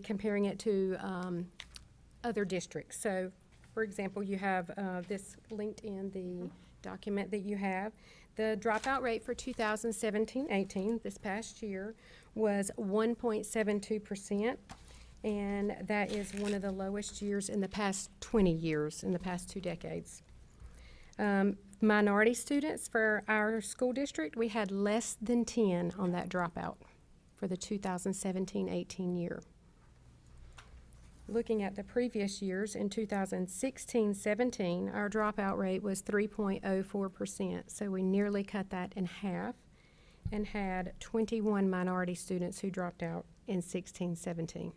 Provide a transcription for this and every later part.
comparing it to um, other districts. So, for example, you have uh, this linked in the document that you have. The dropout rate for 2017-18, this past year, was 1.72%, and that is one of the lowest years in the past 20 years, in the past two decades. Um, Minority students for our school district, we had less than 10 on that dropout for the 2017-18 year. Looking at the previous years, in 2016-17, our dropout rate was 3.04%, so we nearly cut that in half and had 21 minority students who dropped out in 16-17.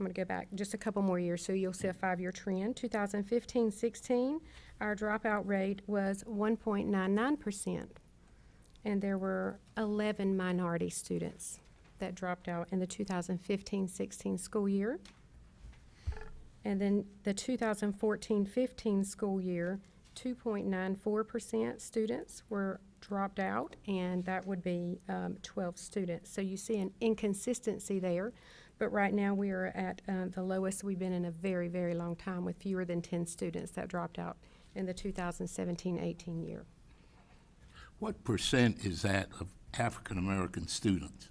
I'm going to go back just a couple more years, so you'll see a five-year trend. 2015-16, our dropout rate was 1.99%, and there were 11 minority students that dropped out in the 2015-16 school year. And then the 2014-15 school year, 2.94% students were dropped out, and that would be um, 12 students. So you see an inconsistency there, but right now we are at uh, the lowest we've been in a very, very long time with fewer than 10 students that dropped out in the 2017-18 year. What percent is that of African-American students?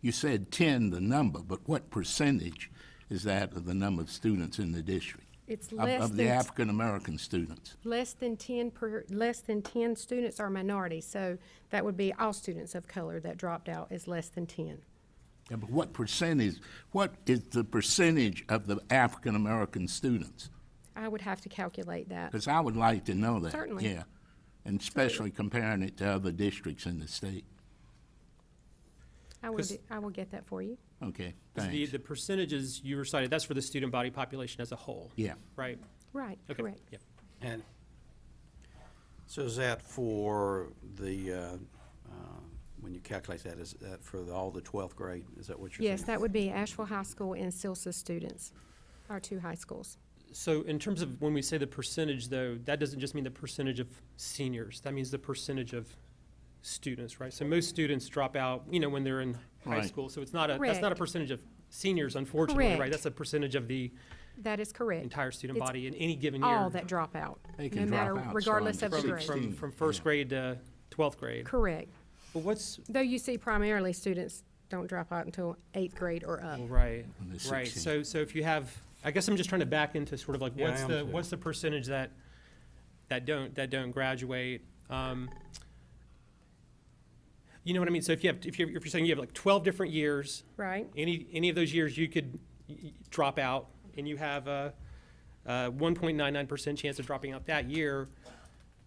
You said 10, the number, but what percentage is that of the number of students in the district? It's Of- less Of the than African-American students? Less than ten per, less than ten students are minorities, so that would be all students of color that dropped out is less than ten. Yeah, but what percentage, what is the percentage of the African-American students? I would have to calculate that. Because I would like to know that. Certainly. Yeah, and especially comparing it to other districts in the state. I will, 'cause- do- I will get that for you. Okay, The, thanks. the percentages you recited, that's for the student body population as a whole? Yeah. Right? Right, Okay. correct. Yep. And so is that for the, uh, uh, when you calculate that, is that for the- all the 12th grade? Is that what you're saying? Yes, that would be Asheville High School and Silsa students, our two high schools. So in terms of when we say the percentage, though, that doesn't just mean the percentage of seniors. That means the percentage of students, right? So most students drop out, you know, when they're in high Right. school. So it's not a, that's not a Correct. percentage of seniors, unfortunately, Correct. right? That's a percentage of the That is correct. entire student It's body in any given year. All that drop out, They no can drop matter, out regardless of from the From, grade. 16. from, from first grade to twelfth grade. Correct. But what's, Though you see primarily students don't drop out until eighth grade or up. Well, Mm. Right, When they're right. 16. So, so if you have, I guess I'm just trying to back into sort of like, Yeah, I what's am the, too. what's the percentage that, that don't, that don't graduate? Um, You know what I mean? So if you have, if you're, if you're saying you have like twelve different years, Right, any, any of those years you could y- y- drop out, and you have a, a one point nine nine percent chance of dropping out that year,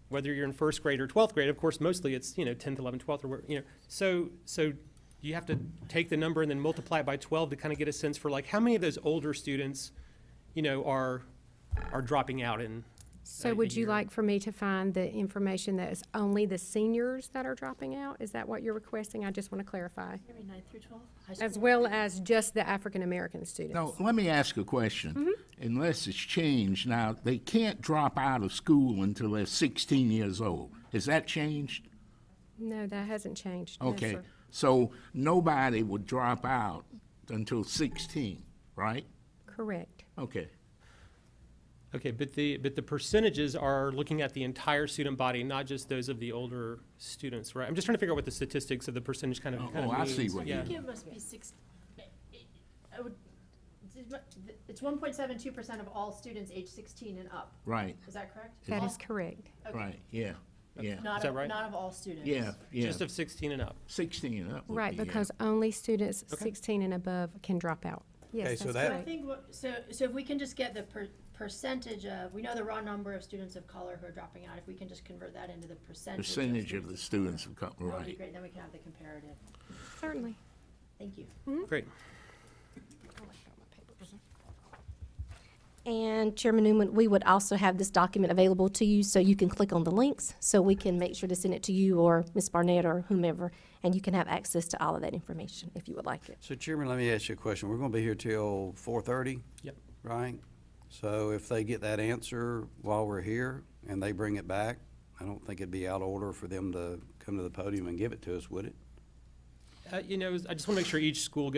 whether you're in first grade or twelfth grade, of course, mostly it's, you know, tenth, eleventh, twelfth, or, where- you know, so, so you have to take the number and then multiply it by twelve to kind of get a sense for like, how many of those older students, you know, are, are dropping out in, so a- a would you year. like for me to find the information that is only the seniors that are dropping out? Is that what you're requesting? I just want to clarify. Every ninth through twelfth? As well as just the African-American Now, students. let me ask a question. Mm-hmm. Unless it's changed, now, they can't drop out of school until they're 16 years old. Has that changed? No, that hasn't changed. No, Okay, sir. so nobody would drop out until 16, right? Correct. Okay, okay, but the, but the percentages are looking at the entire student body, not just those of the older students, right? I'm just trying to figure out what the statistics of the percentage kind of, Oh, kind of oh, I see means. what you Yeah. I think it must be six, I would, it's one point seven two percent of all students age sixteen and up. right, Is that correct? That All- is correct. okay. right, yeah, yeah, Not, that of- right? not of all students. yeah, yeah. Just of 16 and up. 16 and up would Right, be, uh, yeah. because only students Okay. 16 and above can drop out. Okay, Yes, so that's that- So I correct. think, what- so, so if we can just get the per- percentage of, we know the raw number of students of color who are dropping out, if we can just convert that into the percentage. Percentage of the students, students would come, That would be right. great, then we can have the comparative. Certainly. Thank you. Great. And Chairman Newman, we would also have this document available to you, so you can click on the links, so we can make sure to send it to you or Ms. Barnett or whomever, and you can have access to all of that information if you would like it. So Chairman, let me ask you a question. We're going to be here till 4:30? Yep. Right? So if they get that answer while we're here and they bring it back, I don't think it'd be out of order for them to come to the podium and give it to us, would it? Uh, You know, I just want to make sure each school